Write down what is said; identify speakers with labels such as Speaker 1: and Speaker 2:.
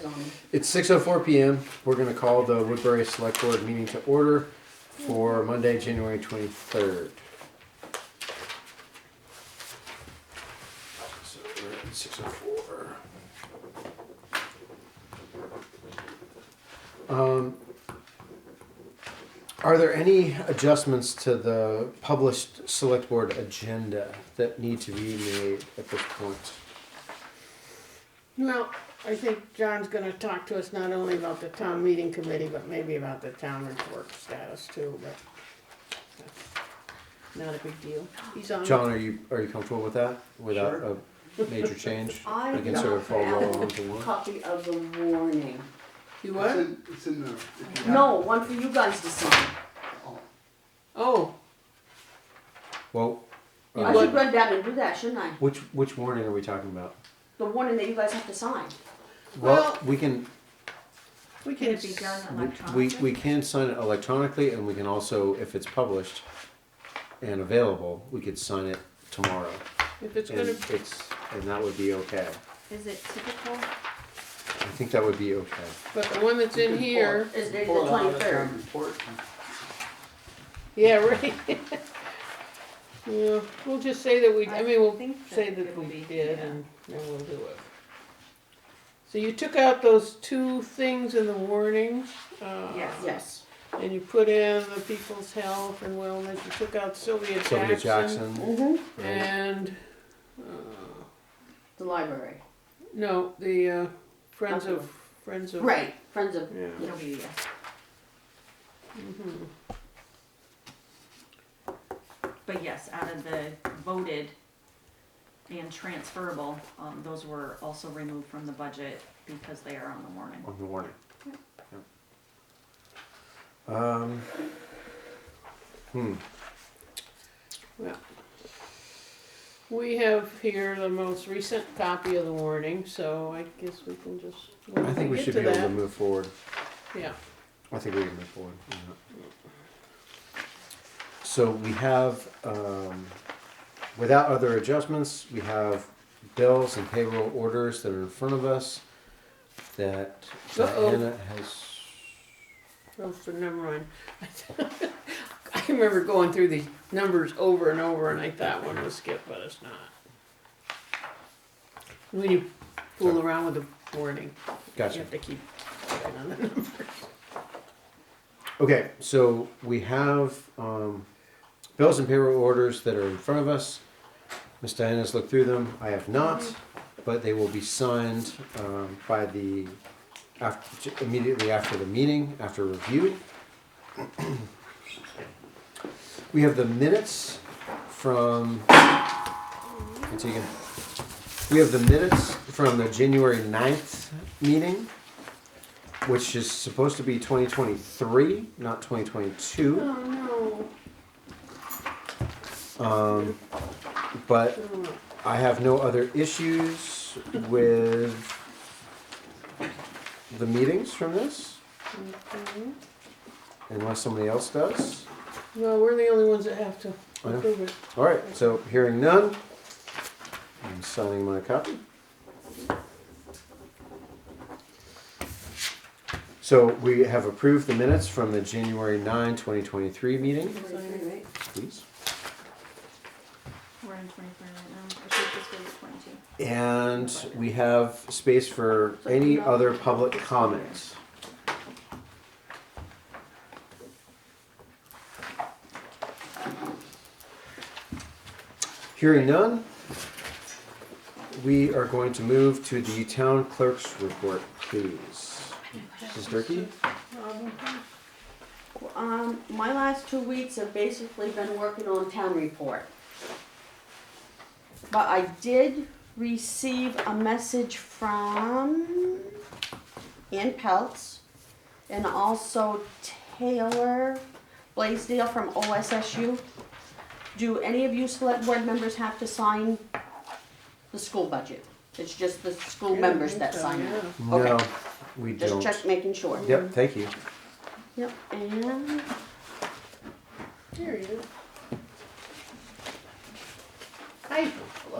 Speaker 1: zoning.
Speaker 2: It's 6:04 PM. We're going to call the Woodbury Select Board meeting to order for Monday, January 23rd. So we're at 6:04. Um, Are there any adjustments to the published Select Board agenda that need to be made at this point?
Speaker 1: Well, I think John's gonna talk to us not only about the town meeting committee, but maybe about the town report status too, but that's not a big deal. He's on.
Speaker 2: John, are you, are you comfortable with that, without
Speaker 3: Sure.
Speaker 2: a major change?
Speaker 4: I
Speaker 2: We can sort of fold it all
Speaker 4: have
Speaker 2: onto
Speaker 4: a
Speaker 2: one?
Speaker 4: copy of the warning.
Speaker 1: You
Speaker 3: It's
Speaker 1: what?
Speaker 3: in, it's in there. if you have
Speaker 4: No, one for you guys to sign.
Speaker 1: Oh,
Speaker 2: Well,
Speaker 1: You
Speaker 2: uh,
Speaker 4: I
Speaker 1: would-
Speaker 4: should run down and do that, shouldn't I?
Speaker 2: which, which warning are we talking about?
Speaker 4: The warning that you guys have to sign.
Speaker 2: Well,
Speaker 1: Well-
Speaker 2: we can,
Speaker 1: we can,
Speaker 5: Can it be done
Speaker 2: we- we,
Speaker 5: electronically?
Speaker 2: we can sign it electronically, and we can also, if it's published and available, we could sign it tomorrow.
Speaker 1: if it's
Speaker 2: And
Speaker 1: gonna,
Speaker 2: it's, and that would be okay.
Speaker 5: Is it typical?
Speaker 2: I think that would be okay.
Speaker 1: but the one that's
Speaker 3: You
Speaker 1: in
Speaker 3: can
Speaker 1: here,
Speaker 4: Is it the
Speaker 3: Pull it out of the town
Speaker 4: 23rd?
Speaker 3: report and-
Speaker 1: yeah, right. Yeah, we'll just say that we, I mean,
Speaker 5: I
Speaker 1: we'll
Speaker 5: think that
Speaker 1: say that
Speaker 5: it'll
Speaker 1: we
Speaker 5: be-
Speaker 1: did
Speaker 5: yeah.
Speaker 1: and then we'll do it. So you took out those two things in the warning, uh.
Speaker 5: Yes.
Speaker 4: Yes.
Speaker 1: And you put in the people's health and wellness, you took out Sylvia
Speaker 2: Sylvia
Speaker 1: Jackson. Eh.
Speaker 2: Jackson,
Speaker 4: Mm-hmm.
Speaker 2: right?
Speaker 1: And, uh,
Speaker 4: The library.
Speaker 1: no, the, uh, Friends of,
Speaker 4: Nothing.
Speaker 1: Friends of.
Speaker 4: Right, Friends of
Speaker 2: Yeah.
Speaker 4: EWS.
Speaker 1: Mhm.
Speaker 5: But yes, out of the voted and transferable, um, those were also removed from the budget because they are on the warning.
Speaker 2: on the warning. Yep. Um, hmm.
Speaker 1: We have here the most recent copy of the warning, so I guess we can just. when
Speaker 2: I think we
Speaker 1: get
Speaker 2: should be
Speaker 1: to
Speaker 2: able to
Speaker 1: that-
Speaker 2: move forward.
Speaker 1: Yeah,
Speaker 2: I think we can move forward. on that. So we have, um, without other adjustments, we have bills and payroll orders that are in front of us that
Speaker 1: Uh-oh.
Speaker 2: Diana has.
Speaker 1: oh, so never mind. I remember going through these numbers over and over and I thought one was skipped, but it's not. When you fool around with the warning. You
Speaker 2: Gotcha.
Speaker 1: have to keep checking on it.
Speaker 2: Okay, so we have um, bills and payroll orders that are in front of us. Miss Diana's looked through them. I have not, but they will be signed um, by the after, immediately after the meeting after review. we have the minutes from. Antigua. We have the minutes from the January 9th meeting which is supposed to be 2023, not 2022.
Speaker 1: Oh
Speaker 2: Um, but
Speaker 1: no.
Speaker 2: I have no other issues with the meetings from this, unless somebody else does.
Speaker 1: Well, we're the only ones that have to
Speaker 2: I know.
Speaker 1: approve it.
Speaker 2: All right, so hearing none, I'm signing my copy. So we have approved the minutes from the January 9, 2023 meeting,
Speaker 4: 23rd, right?
Speaker 2: please.
Speaker 5: We're in twenty-three right now, I should just go to twenty-two.
Speaker 2: And we have space for any other public comments. Hearing none, we are going to move to the town clerk's report, please. Mrs. Durkey?
Speaker 4: Um, my last two weeks have basically been working on town report. But I did receive a message from Ann Peltz and also Taylor Blaisdell from OSSU. Do any of you select board members have to sign the school budget? It's just the school
Speaker 1: Yeah, I
Speaker 4: members
Speaker 1: think
Speaker 4: that
Speaker 1: so,
Speaker 4: sign
Speaker 1: yeah.
Speaker 4: it.
Speaker 2: No, we
Speaker 4: Just
Speaker 2: don't.
Speaker 4: check, making sure.
Speaker 2: Yep, thank you.
Speaker 4: Yep, and
Speaker 1: Here you go. Hi.